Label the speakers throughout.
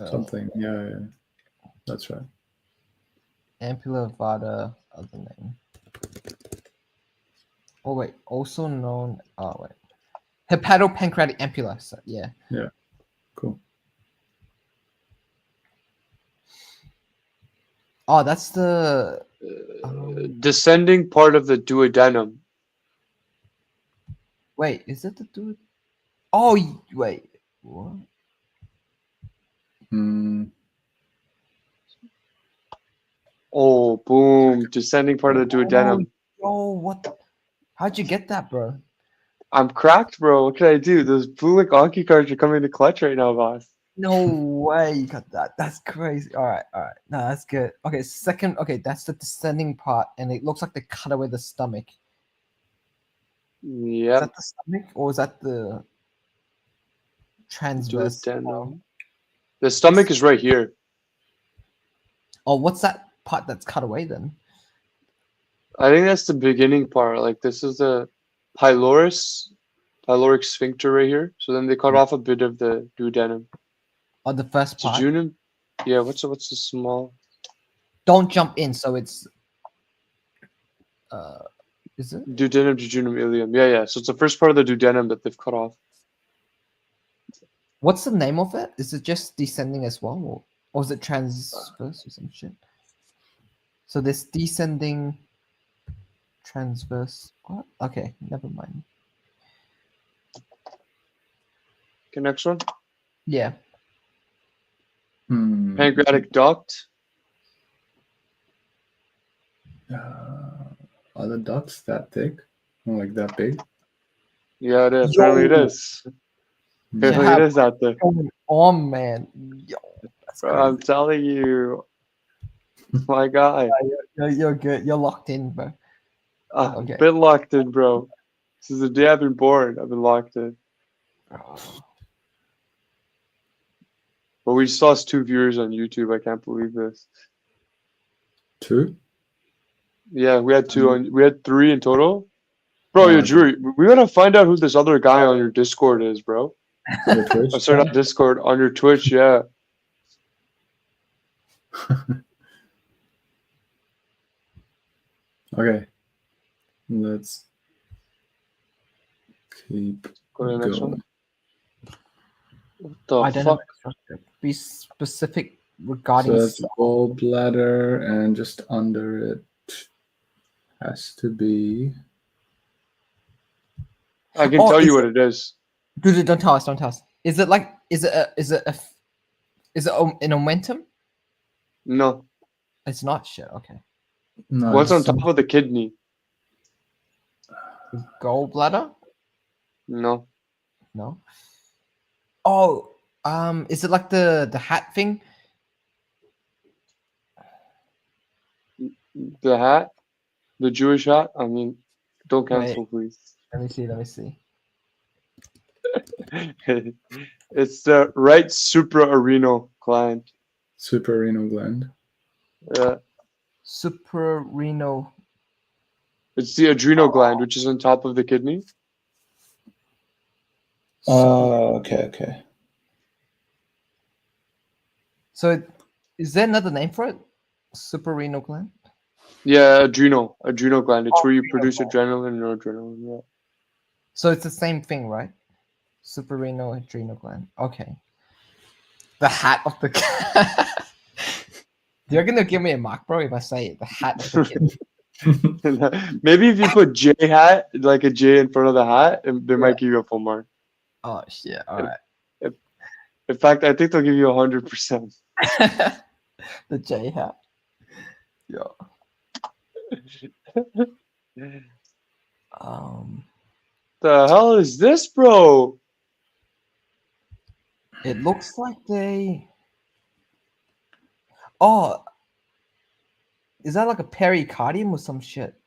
Speaker 1: Oh.
Speaker 2: Oh.
Speaker 3: Something. Yeah, yeah. That's right.
Speaker 1: Ampulavada, other name. Oh wait, also known. Oh wait, hepatopancreatic ampulla. So, yeah.
Speaker 3: Cool.
Speaker 1: Oh, that's the.
Speaker 2: Uh,
Speaker 1: Um.
Speaker 2: descending part of the duodenum.
Speaker 1: Wait, is that the dude? Oh y- wait, what?
Speaker 3: Mm,
Speaker 2: Oh, boom. Descending part of the duodenum.
Speaker 1: Oh, what? The... How'd you get that, bro?
Speaker 2: I'm cracked, bro. What can I do? Those blue link Anki cards are coming to clutch right now, boss.
Speaker 1: No way you got that. That's crazy. All right, all right. No, that's good. Okay, second. Okay, that's the descending part, and it looks like they cut away the stomach. Is
Speaker 2: Yep.
Speaker 1: that the stomach, or is that the transverse?
Speaker 2: Duodenum. The stomach is right here.
Speaker 1: Oh, what's that part that's cut away then?
Speaker 2: I think that's the beginning part. Like this is the pylorus, pyloric sphincter right here. So then they cut off a bit of the duodenum.
Speaker 1: Oh, the first
Speaker 2: So
Speaker 1: part.
Speaker 2: Junum, yeah. What's the, what's the small?
Speaker 1: Don't jump in. So it's. Uh, is it?
Speaker 2: Duodenum, jejunum, ileum. Yeah, yeah. So it's the first part of the duodenum that they've cut off.
Speaker 1: What's the name of it? Is it just descending as well, or, or is it transverse or some shit? So this descending, transverse. What? Okay, never mind.
Speaker 2: Okay, next one.
Speaker 1: Yeah.
Speaker 3: hmm.
Speaker 2: Pancreatic duct.
Speaker 3: Uh, are the ducts that thick? Like that big?
Speaker 2: Yeah, it is. Apparently it
Speaker 1: Yo.
Speaker 2: is.
Speaker 3: Mm.
Speaker 2: Apparently
Speaker 1: Yeah.
Speaker 2: it is out there.
Speaker 1: Oh, oh man, yo, that's
Speaker 3: Hmm.
Speaker 2: Bro, I'm
Speaker 1: crazy.
Speaker 2: telling you. My guy.
Speaker 1: You're, you're good. You're locked in, bro.
Speaker 2: Uh, I've
Speaker 1: Okay.
Speaker 2: been locked in, bro. Since the day I've been born, I've been locked in. But we just lost two viewers on YouTube. I can't believe this.
Speaker 3: Two?
Speaker 2: Yeah, we had two
Speaker 3: Mhm.
Speaker 2: on. We had three in total. Bro,
Speaker 3: Yeah,
Speaker 2: yo,
Speaker 3: I
Speaker 2: Drew, we gotta find out who this other guy on your Discord is, bro.
Speaker 3: Your Twitch?
Speaker 2: I'm sorry, not Discord, on your Twitch. Yeah,
Speaker 3: Okay. Let's keep
Speaker 2: go to the next one.
Speaker 3: going.
Speaker 2: What the
Speaker 1: I
Speaker 2: fuck?
Speaker 1: don't know. Be specific regarding.
Speaker 3: So that's
Speaker 1: s-
Speaker 3: gallbladder, and just under it has to be.
Speaker 2: I can
Speaker 1: Oh,
Speaker 2: tell
Speaker 1: is
Speaker 2: you what it is.
Speaker 1: Dude, dude, don't tell us. Don't tell us. Is it like? Is it? A, is it? A, f- is it om- an omentum?
Speaker 2: No,
Speaker 1: It's not shit. Okay.
Speaker 3: No,
Speaker 2: what's on
Speaker 3: Oh, it's
Speaker 2: top of the kidney?
Speaker 1: Gallbladder?
Speaker 2: No,
Speaker 1: No. Oh, um, is it like the the hat thing?
Speaker 2: the hat, the Jewish hat. I mean, don't
Speaker 1: Wait.
Speaker 2: cancel,
Speaker 1: Let me see. Let me see.
Speaker 2: please. it's the right supraarenal gland. uh,
Speaker 3: suprarenal gland.
Speaker 2: Yeah.
Speaker 1: Suprarenal.
Speaker 2: It's the
Speaker 1: Oh.
Speaker 2: adrenal gland, which is on top of the kidney. Uh,
Speaker 3: Oh, okay, okay.
Speaker 1: So, it, is there another name for it? Suprarenal gland.
Speaker 2: Yeah, adrenal, adrenal gland. It's
Speaker 1: Oh,
Speaker 2: where you
Speaker 1: adrenal
Speaker 2: produce
Speaker 1: gland.
Speaker 2: adrenaline and noradrenaline. Yeah.
Speaker 1: So it's the same thing, right? Suprarenal adrenal gland. Okay. The hat of the. You're gonna give me a mark, bro, if I say it. The hat of the kid.
Speaker 3: Uh,
Speaker 2: Maybe if you put J hat, like a J in front of the hat, it- they might give you a full mark.
Speaker 1: oh shit! All right.
Speaker 2: In fact, I think they'll give you a hundred percent.
Speaker 1: the J hat. Um,
Speaker 2: The hell is this,
Speaker 1: Oh.
Speaker 2: bro?
Speaker 1: it looks like they. Oh, is that like a pericardium or some shit?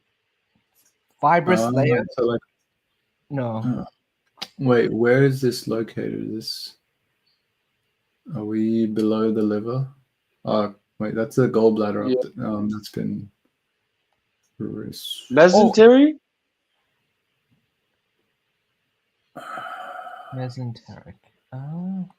Speaker 1: Fibrous
Speaker 3: Uh,
Speaker 1: layer?
Speaker 3: so like,
Speaker 1: No. Mm.
Speaker 3: uh, wait, where is this located? Is this? Are we below the liver? Oh, wait, that's the gallbladder. Up th- um, that's been. res-
Speaker 2: Mesentery?
Speaker 1: Mesenteric. Oh.